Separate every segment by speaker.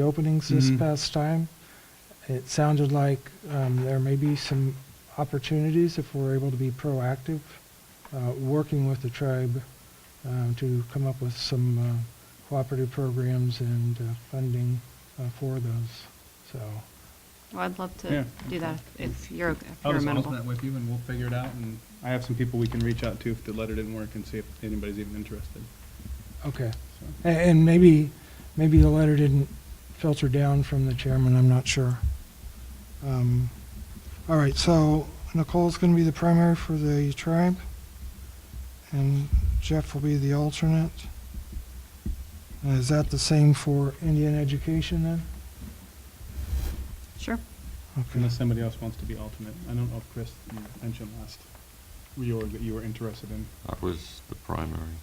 Speaker 1: the openings this
Speaker 2: Mhm.
Speaker 1: past time. It sounded like um, there may be some opportunities if we're able to be proactive, uh, working with the tribe um, to come up with some uh, cooperative programs and uh, funding uh, for those, so.
Speaker 3: Well, I'd love
Speaker 2: Yeah,
Speaker 3: to do that if if you're, if
Speaker 2: I'll
Speaker 3: you're
Speaker 2: just house
Speaker 3: amenable.
Speaker 2: that with you and we'll figure it out and I have some people we can reach out to if the letter didn't work and see if anybody's even interested.
Speaker 1: Okay.
Speaker 2: So,
Speaker 1: A- And maybe, maybe the letter didn't filter down from the chairman, I'm not sure. Um, All right, so Nicole's going to be the primary for the tribe, and Jeff will be the alternate. And Is that the same for Indian education then?
Speaker 3: Sure.
Speaker 1: Okay.
Speaker 2: Unless somebody else wants to be alternate. I don't know if Chris you mentioned last reorg that you were interested in.
Speaker 4: I was the primary,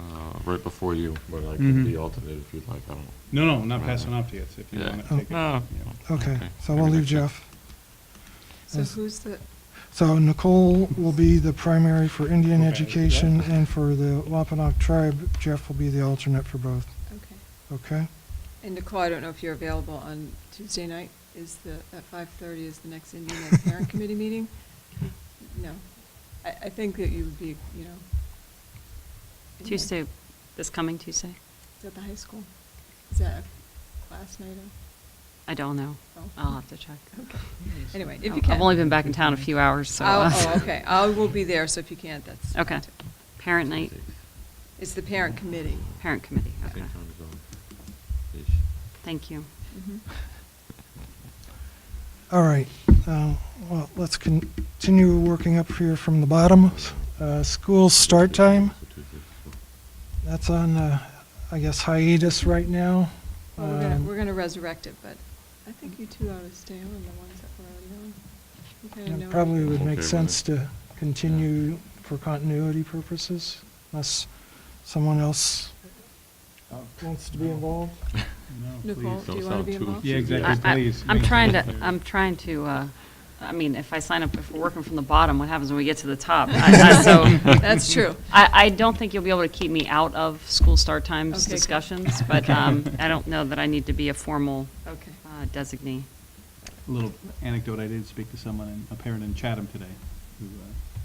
Speaker 4: uh, right before you, but I can be
Speaker 2: Mhm.
Speaker 4: alternate if you'd like, I don't.
Speaker 2: No, no, not passing off to you. It's if you
Speaker 4: Yeah.
Speaker 2: want to take it.
Speaker 4: No.
Speaker 2: you know.
Speaker 1: Okay,
Speaker 4: Okay,
Speaker 1: so we'll
Speaker 4: maybe
Speaker 1: leave
Speaker 4: next year.
Speaker 1: Jeff.
Speaker 5: So
Speaker 1: Yes.
Speaker 5: who's the,
Speaker 1: So Nicole will be the primary for Indian
Speaker 2: Okay.
Speaker 1: education, and for the Wampanoag tribe, Jeff will be the alternate for both,
Speaker 5: okay.
Speaker 1: okay?
Speaker 5: And Nicole, I don't know if you're available on Tuesday night, is the, at 5:30 is the next Indian Ed Parent Committee meeting? No. I, I think that you would be, you know. in the-
Speaker 3: Tuesday, this coming Tuesday?
Speaker 5: Is that the high school? Is that last night
Speaker 3: I don't know.
Speaker 5: or? oh,
Speaker 3: I'll have to check.
Speaker 5: Okay. Anyway, if
Speaker 3: I've-
Speaker 5: you can.
Speaker 3: I've only been back in town a few hours, so.
Speaker 5: I'll-
Speaker 3: uh,
Speaker 5: Oh, okay. I will be there, so if you can't, that's.
Speaker 3: Okay. Parent night,
Speaker 5: It's the parent committee.
Speaker 3: parent committee, okay.
Speaker 4: Same time as on.
Speaker 3: Thank you.
Speaker 5: Mhm.
Speaker 1: All right, uh, well, let's continue working up here from the bottom. Uh, School start time, that's on, uh, I guess hiatus right now.
Speaker 5: Well, we're gonna,
Speaker 1: Um,
Speaker 5: we're gonna resurrect it, but I think you two ought to stay on, the ones that were already on. You kinda
Speaker 1: and
Speaker 5: know
Speaker 1: it Probably would
Speaker 4: Okay
Speaker 1: make
Speaker 4: with
Speaker 1: sense
Speaker 4: it.
Speaker 1: to continue for continuity purposes, unless someone else
Speaker 2: Oh.
Speaker 1: wants to be involved.
Speaker 2: No,
Speaker 5: Nicole,
Speaker 2: please.
Speaker 5: do
Speaker 4: Don't
Speaker 5: you wanna
Speaker 4: sound
Speaker 5: be
Speaker 4: too
Speaker 5: involved?
Speaker 2: Yeah,
Speaker 4: enthusiastic.
Speaker 2: exactly.
Speaker 3: I- I-
Speaker 2: please,
Speaker 3: I'm
Speaker 2: make
Speaker 3: trying to,
Speaker 2: sure.
Speaker 3: I'm trying to, uh, I mean, if I sign up, if we're working from the bottom, what happens when we get to the top? I- I- So
Speaker 5: That's true.
Speaker 3: I, I don't think you'll be able to keep me out of school start times
Speaker 5: Okay.
Speaker 3: discussions, but um, I don't know that I need to be a formal
Speaker 5: Okay.
Speaker 3: uh, designee.
Speaker 2: A little anecdote, I did speak to someone, in- a parent in Chatham today, who,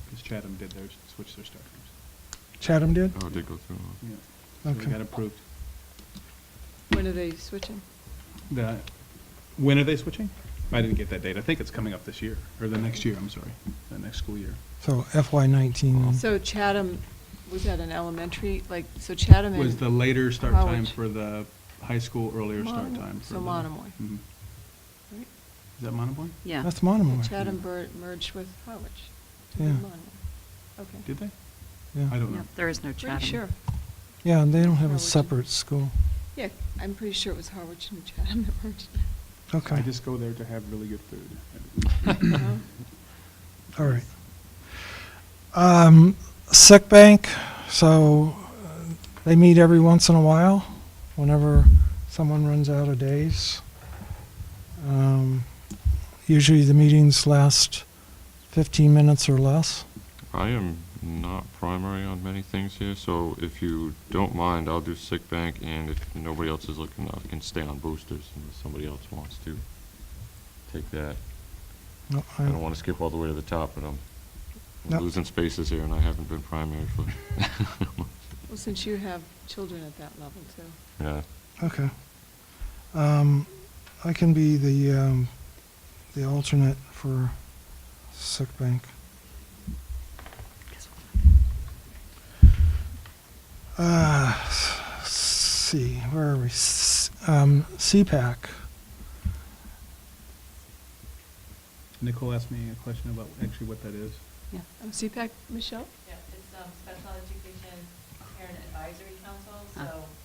Speaker 2: because Chatham did theirs, switched their start times.
Speaker 1: Chatham did?
Speaker 4: Oh, it did go through. huh?
Speaker 2: Yeah. So they
Speaker 1: Okay.
Speaker 2: got approved.
Speaker 5: When are they switching?
Speaker 2: The, when are they switching? I didn't get that date. I think it's coming up this year, or the next year, I'm sorry, the next school year.
Speaker 1: So FY
Speaker 2: Oh.
Speaker 1: nineteen.
Speaker 5: So Chatham, was that an elementary, like, so Chatham and?
Speaker 2: Was the later start time
Speaker 5: College.
Speaker 2: for the high school, earlier start
Speaker 5: Monomoy.
Speaker 2: time for
Speaker 5: So
Speaker 2: the-
Speaker 5: Monomoy.
Speaker 2: Mhm. Is
Speaker 5: right?
Speaker 2: that Monomoy?
Speaker 3: Yeah.
Speaker 1: That's
Speaker 2: Oh,
Speaker 1: Monomoy.
Speaker 5: Chatham bur- merged with Harwich. to
Speaker 1: Yeah.
Speaker 5: be Monomoy. Okay.
Speaker 2: Did they?
Speaker 1: Yeah.
Speaker 2: I don't
Speaker 3: Yep,
Speaker 2: know.
Speaker 3: There is no
Speaker 5: Pretty
Speaker 3: Chatham.
Speaker 5: sure.
Speaker 1: Yeah, and they don't have a
Speaker 5: Religion.
Speaker 1: separate school.
Speaker 5: Yeah, I'm pretty sure it was Harwich and Chatham that merged.
Speaker 1: Okay.
Speaker 2: I just go there to have really good food.
Speaker 5: You know?
Speaker 1: All right. Um, Sick bank, so uh, they meet every once in a while, whenever someone runs out of days. Um, Usually the meetings last 15 minutes or less.
Speaker 4: I am not primary on many things here, so if you don't mind, I'll do sick bank, and if nobody else is looking, I can stay on boosters unless somebody else wants to take that.
Speaker 1: No,
Speaker 4: I don't
Speaker 1: I-
Speaker 4: want to skip all the way to the top, but I'm I'm
Speaker 1: Nope.
Speaker 4: losing spaces here, and I haven't been primary for,
Speaker 5: Well, since you have children at that level too.
Speaker 4: yeah.
Speaker 1: Okay. Um, I can be the, um, the alternate for sick bank. Uh, s- see, where are we? S- um, CPAC.
Speaker 2: Nicole asked me a question about actually what that is.
Speaker 3: Yeah.
Speaker 5: Um, CPAC, Michelle?
Speaker 6: Yeah, it's um, Special Education Parent Advisory Council,
Speaker 3: Ah.
Speaker 6: so um,
Speaker 5: um, uh,